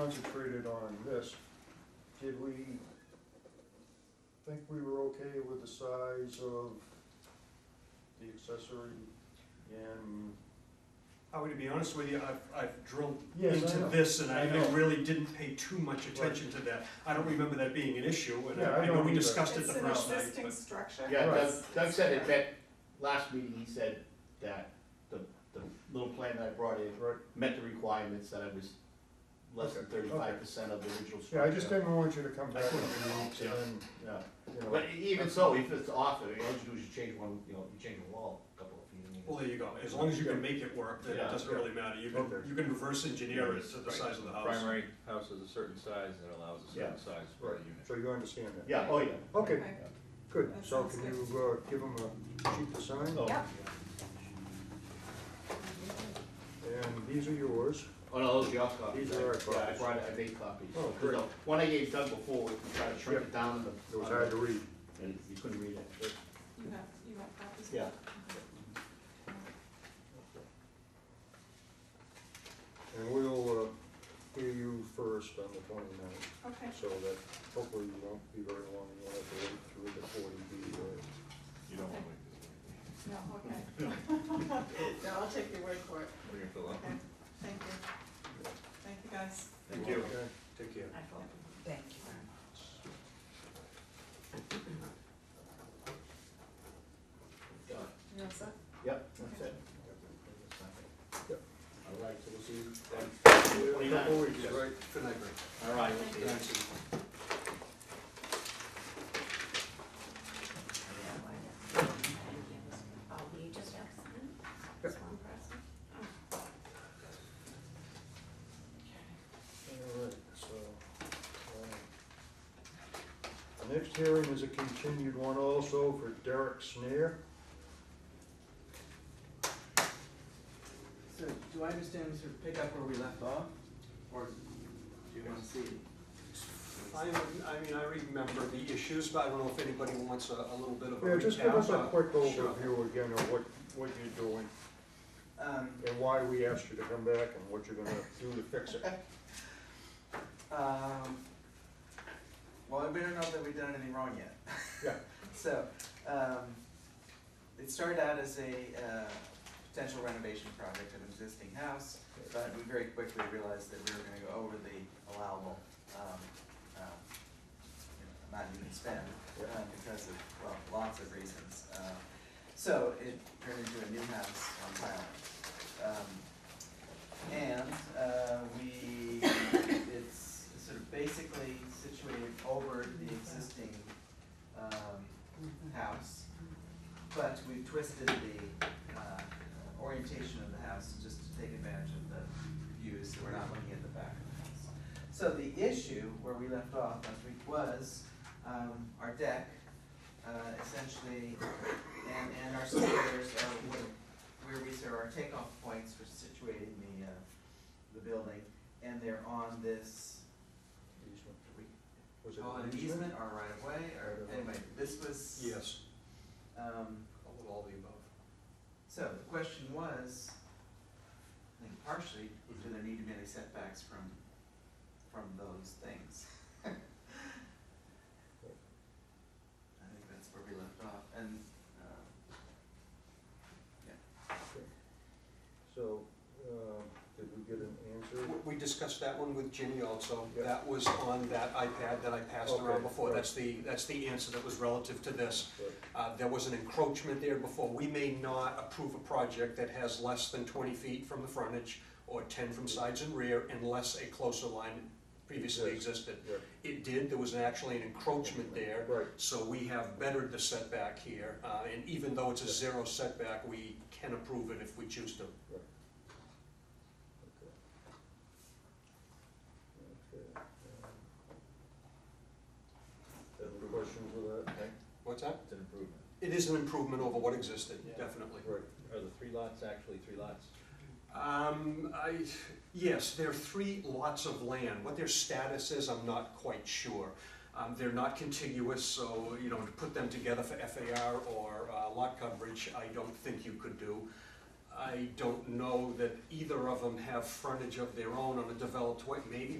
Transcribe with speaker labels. Speaker 1: concentrated on this, did we think we were okay with the size of the accessory and?
Speaker 2: I would be honest with you, I've, I've drilled
Speaker 1: Yes, I
Speaker 2: into
Speaker 1: know.
Speaker 2: this and I
Speaker 1: I know.
Speaker 2: I really didn't pay too much attention to that. I don't remember that being an issue and
Speaker 1: Yeah, I
Speaker 2: I I know
Speaker 1: don't
Speaker 2: we
Speaker 1: either.
Speaker 2: discussed it the first night,
Speaker 3: It's an existing
Speaker 2: but
Speaker 3: structure.
Speaker 4: Yeah, Doug,
Speaker 3: It's-
Speaker 4: Doug said it,
Speaker 3: it's-
Speaker 4: that, last meeting, he said that the, the little plan that I brought in
Speaker 1: Right,
Speaker 4: met the requirements that I was less than
Speaker 1: Okay, okay.
Speaker 4: thirty-five percent of the original structure.
Speaker 1: yeah, I just didn't want you to come back
Speaker 2: That's
Speaker 1: and
Speaker 2: what
Speaker 1: do
Speaker 2: it
Speaker 1: it, and
Speaker 4: Yeah,
Speaker 1: then, you know.
Speaker 4: but e- even so, if it's off, all you have to do is you change one, you know, you change the wall a couple of feet. I mean,
Speaker 2: well, there you go. As long as you can make it work, then it
Speaker 4: Yeah.
Speaker 2: doesn't really matter. You can,
Speaker 1: Okay.
Speaker 2: you can reverse engineer it to the
Speaker 5: Right.
Speaker 2: size of the house.
Speaker 5: Primary house is a certain size and it allows a
Speaker 4: Yeah.
Speaker 5: certain size for
Speaker 1: Right,
Speaker 5: a unit.
Speaker 1: so you understand that?
Speaker 4: Yeah, oh, yeah.
Speaker 1: Okay,
Speaker 3: Okay.
Speaker 1: good,
Speaker 3: That
Speaker 1: so
Speaker 3: sounds
Speaker 1: can
Speaker 3: good.
Speaker 1: you, uh, give them a sheet to sign?
Speaker 4: Oh,
Speaker 3: Yep.
Speaker 1: And these are yours,
Speaker 4: Oh, no, those are your copies.
Speaker 1: These are our
Speaker 4: Yeah, I
Speaker 1: copies.
Speaker 4: brought, I made copies.
Speaker 1: Oh,
Speaker 4: 'Cause
Speaker 1: great.
Speaker 4: the One I gave Doug before, we tried to shrink
Speaker 1: Yeah.
Speaker 4: it down in the.
Speaker 1: it was hard to read.
Speaker 4: And you couldn't read it. But-
Speaker 3: You have, you have copies?
Speaker 4: Yeah.
Speaker 1: And we'll, uh, hear you first on the twenty-ninth,
Speaker 3: Okay,
Speaker 1: so that hopefully you won't be very long, you'll have to wait through the forty B or.
Speaker 5: You don't want to wait this way.
Speaker 3: no, okay. No, I'll take your word for it.
Speaker 5: We're gonna fill out.
Speaker 3: Okay, thank you. Thank you, guys.
Speaker 2: Thank you.
Speaker 1: Okay.
Speaker 2: Take care.
Speaker 3: Thank you very much.
Speaker 4: Done.
Speaker 3: You all set?
Speaker 4: Yep, that's it.
Speaker 1: Yep.
Speaker 4: All right, so we'll see you then.
Speaker 1: Yeah, a couple weeks,
Speaker 4: Yes.
Speaker 1: right?
Speaker 2: Good night, Greg.
Speaker 4: All right.
Speaker 3: Thank you.
Speaker 2: Thanks.
Speaker 6: Oh, you just have to sign? This one person?
Speaker 1: All right, so. um, The next hearing is a continued one also for Derek Snare.
Speaker 7: So, do I understand we sort of pick up where we left off, or do you want to see?
Speaker 2: I, I mean, I remember the issues, but I don't know if anybody wants a, a little bit of a recap.
Speaker 1: Yeah, just give us a
Speaker 2: uh,
Speaker 1: quick
Speaker 2: Sure.
Speaker 1: overview again of what, what you're doing
Speaker 7: Um,
Speaker 1: and why we asked you to come back and what you're gonna do to fix it.
Speaker 7: um, well, we don't know that we've done anything wrong yet.
Speaker 1: Yeah.
Speaker 7: So, um, it started out as a, uh, potential renovation project of an existing house, but we very quickly realized that we were gonna go over the allowable, um, um, you know, amount you can spend,
Speaker 1: Yeah.
Speaker 7: uh, because of, well, lots of reasons. Uh, So it turned into a new house on Thailand. Um, and, uh, we, it's sort of basically situated over the existing, um, house. But we twisted the, uh, orientation of the house just to take advantage of the views, so we're not looking at the back of the house. So the issue where we left off last week was, um, our deck, uh, essentially, and, and our stairs are where, where we sort of our takeoff points for situating the, uh, the building, and they're on this,
Speaker 1: Easement.
Speaker 7: we
Speaker 1: Was it
Speaker 5: Uh,
Speaker 7: call it an easement or right of way, or, anyway, this was.
Speaker 2: Yes,
Speaker 7: Um,
Speaker 2: a little all the above.
Speaker 7: so the question was, I think partially, do there need to be any setbacks from, from those things? I think that's where we left off, and, uh,
Speaker 1: So, uh, did we get an answer?
Speaker 2: We discussed that one with Ginny also.
Speaker 1: Yeah.
Speaker 2: That was on that iPad that I passed
Speaker 1: Okay,
Speaker 2: around before.
Speaker 1: right.
Speaker 2: That's the, that's the answer that was relative to this.
Speaker 1: Right.
Speaker 2: Uh, There was an encroachment there before. We may not approve a project that has less than 20 feet from the frontage or 10 from sides and rear unless a closer line previously
Speaker 1: Yes.
Speaker 2: existed.
Speaker 1: Yeah,
Speaker 2: It did, there was actually an encroachment there.
Speaker 1: Right,
Speaker 2: So we have bettered the setback here. uh, And even though it's a zero setback, we can approve it if we choose to.
Speaker 1: okay. Okay. um, Any questions with that?
Speaker 2: What's that?
Speaker 5: It's an improvement.
Speaker 2: It is an improvement over what existed,
Speaker 5: Yeah.
Speaker 2: definitely.
Speaker 1: Right,
Speaker 5: Are the three lots actually three lots?
Speaker 2: Um, I, yes, there are three lots of land. What their status is, I'm not quite sure. Um, they're not contiguous, so, you know, to put them together for FAR or, uh, lot coverage, I don't think you could do. I don't know that either of them have frontage of their own on a developed way, maybe